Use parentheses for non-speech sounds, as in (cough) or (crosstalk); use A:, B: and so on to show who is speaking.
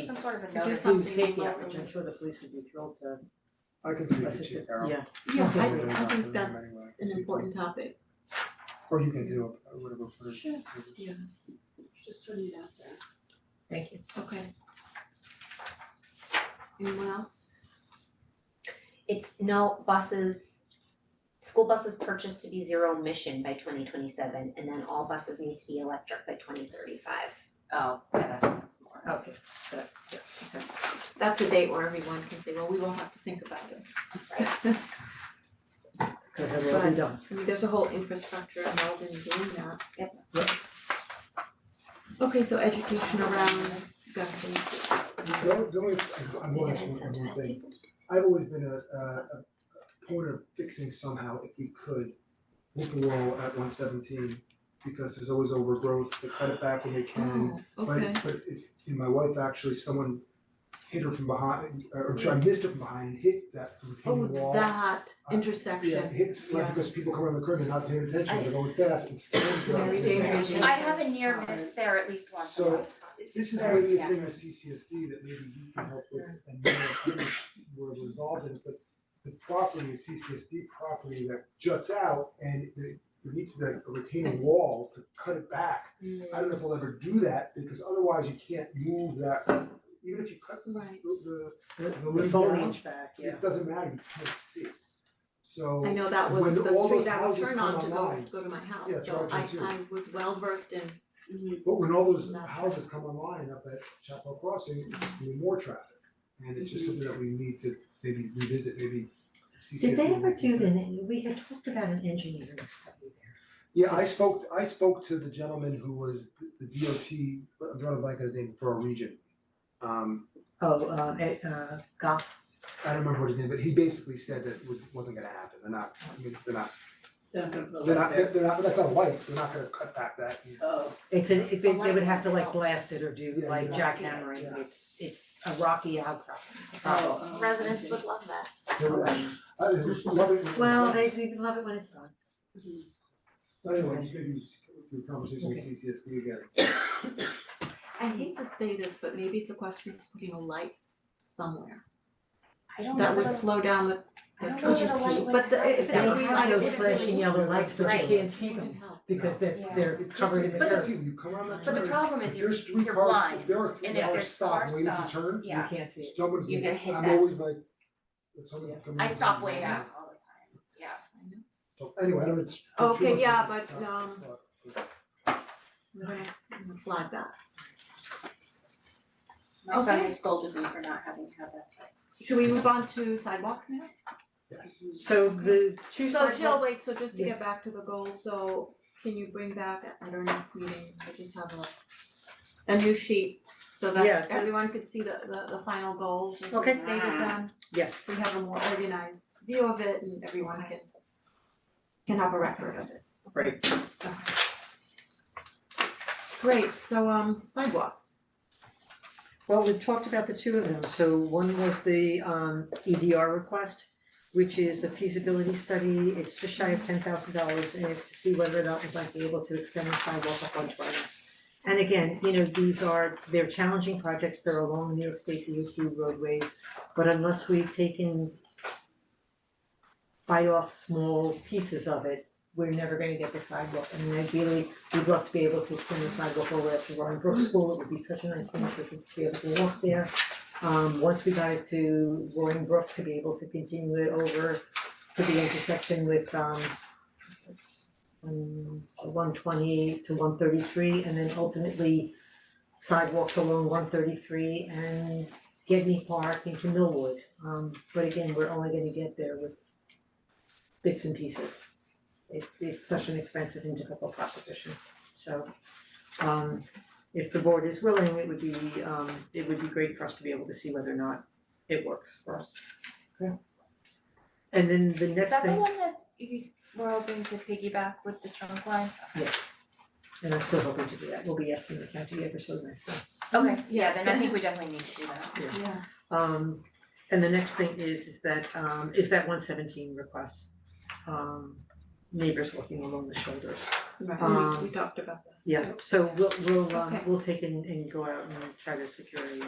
A: some sort of a
B: Could you
A: notice,
B: do
A: something
B: safety
A: locally.
B: outreach, I'm sure the police would be thrilled to
C: I can speak to
B: assist
C: Chief
B: it,
C: Carroll.
B: yeah,
D: Yeah,
C: Hopefully they're
D: I I
C: not
D: think
C: doing them
D: that's
C: anyway.
D: an important topic,
C: Or you can do a- whatever for.
D: Sure. just putting it out there.
E: Thank you.
D: Okay. Anyone else?
E: It's no buses, school buses purchased to be zero emission by twenty twenty seven and then all buses need to be electric by twenty thirty five.
A: Oh, yeah, that's that's more.
B: okay, that, yeah, makes sense.
D: That's a date where everyone can say, well, we won't have to think about it.
B: (laughs) Cause then it'll be done,
D: I mean, there's a whole infrastructure involved in doing that.
E: Yep.
B: Yep.
D: Okay, so education around guns and stuff.
C: The only, the only, I will ask one, one more thing. I've always been a, a, a point of fixing somehow, if we could, whoop wall at one seventeen, because there's always overgrowth, they cut it back when they can.
D: Oh, okay.
C: Um, But, but it's, and my wife actually, someone hit her from behind, or, or sorry, missed her from behind, hit that retaining
D: Oh,
C: wall.
D: that
C: Uh, Yeah,
D: intersection.
C: hit, slap, because people come around the curve and not paying attention, they're going fast and slammed her.
D: Very
C: It's just-
D: dangerous.
A: I have a
D: Jesus.
A: near miss there at least once.
C: So, This is
A: Very
C: maybe a
A: yeah.
C: thing with CCSD that maybe you can help with and you know, maybe we're involved in, it, but the property is CCSD property that juts out and there there needs to be a
D: I
C: retaining
D: see.
C: wall to cut it back.
D: Mm.
C: I don't know if we'll ever do that because otherwise you can't move that, even if you cut
D: Right.
C: the
B: the
C: limb
B: the phone
C: down,
B: range back, yeah.
C: it doesn't matter, you can't see. So
D: I know that was
C: when
D: the
C: all
D: street
C: those
D: I would
C: houses
D: turn
C: come
D: on to go,
C: online-
D: go to my house,
C: Yes,
D: so I,
C: Roger, too.
D: I was well versed in,
C: But when all those
D: Not-
C: houses come online up at Chapel Crossing, it's just gonna be more traffic. And it's just something that we need to maybe revisit, maybe CCSD.
B: Did they ever do
C: revisit.
B: the, we had talked about an engineering study there.
C: Yeah, I
B: Just-
C: spoke, I spoke to the gentleman who was the DOT, I'm drawing a blank on his name, for our region. Um,
B: Oh, uh, eh, uh, golf,
C: I don't remember what his name, but he basically said that it was, wasn't gonna happen, they're not, I mean, they're not, they're not, they're they're not, that's not light, they're not gonna cut back that. you know.
B: it's an, it- they, they would have to like blast it or do
C: Yeah,
B: like
C: you'd have
A: to-
B: jackhammering,
C: yeah.
B: it's, it's a rocky outcrop. Oh.
E: Residents would love that.
C: They were- I was loving it.
B: Well, they, they love it when it's done.
C: Anyway, maybe do a conversation with CCSD again.
D: I hate to say this, but maybe it's a question of putting a light somewhere.
E: I don't
D: That
E: know
D: would
E: that
D: slow down the,
E: I
D: the
E: don't know
D: traffic.
E: that a light would
D: But the-
E: help
D: if it's
E: that
D: a
E: much.
D: green
B: They
D: light,
B: have
D: it
B: those
D: would
B: flashing
D: really-
B: yellow lights, but
E: Right.
B: you can't see
D: Wouldn't
B: them
D: help.
B: because they're,
A: Yeah.
B: they're
C: It
B: covered in the
C: doesn't- but
B: dirt,
C: see, you come around that
A: But the
C: curve,
A: problem is
C: if
A: you're-
C: there's three
A: you're
C: cars-
A: blind,
C: if there are three
A: and if
C: cars
A: there's
C: stopped
A: cars
C: waiting to
A: stopped,
C: turn,
B: you
A: yeah.
B: can't see it.
C: someone's
E: You're
C: gonna-
E: gonna hit
C: I'm
E: that.
C: always like, when someone's
B: Yeah.
C: coming
A: I
C: in,
A: stop
C: someone-
A: way out all the time, yeah.
C: So anyway, I know it's. it's too
D: Okay,
C: much
D: yeah,
C: of a
D: but, um,
C: topic,
D: We're gonna I'm gonna flag that.
A: My son
D: Okay.
A: has scolded me for not having had that fixed.
D: Should we move on to sidewalks now?
C: Yes,
B: So the two
D: So
B: sidewalk.
D: Jill, wait, so just to
B: Yes.
D: get back to the goal, so can you bring back at our next meeting, I just have a a new sheet so
B: Yeah.
D: that everyone could see the the the final goals and
B: Okay.
D: we stated them,
B: Yes,
D: we have a more organized view of it and everyone can can have a record of it.
B: Great.
D: Great, so um sidewalks,
B: well, we talked about the two of them, so one was the um EDR request, which is a feasibility study, it's just shy of ten thousand dollars, and it's to see whether or not we might be able to extend the sidewalk up one twenty. And again, you know, these are, they're challenging projects, they're along New York State DOT roadways, but unless we take and bite off small pieces of it, we're never gonna get the sidewalk, I mean, ideally, we'd love to be able to extend the sidewalk all the way up to Roaring Brook School, it would be such a nice thing for kids to be able to walk there. Um, once we got it to Roaring Brook, to be able to continue it over to the intersection with, um, one twenty to one thirty-three, and then ultimately sidewalks along one thirty-three and Gedney Park into Millwood. Um, but again, we're only gonna get there with bits and pieces it it's such an expensive and difficult proposition. So um if the board is willing, it would be um it would be great for us to be able to see whether or not it works for us. Okay. And then the
A: Is
B: next
A: that the
B: thing,
A: one that you s- were hoping to piggyback with the trunk line?
B: and I'm still hoping to do that, we'll be asking the county ever so nicely.
A: Okay, yeah, then I
D: Yes.
A: think we definitely need to do that.
D: yeah,
B: Um and the next thing is is that um is that one seventeen request. Um neighbors walking along the shoulders.
D: right, we we
B: Um,
D: talked about that.
B: Yeah, so we'll we'll um
D: Okay.
B: we'll take and and go out and try to secure a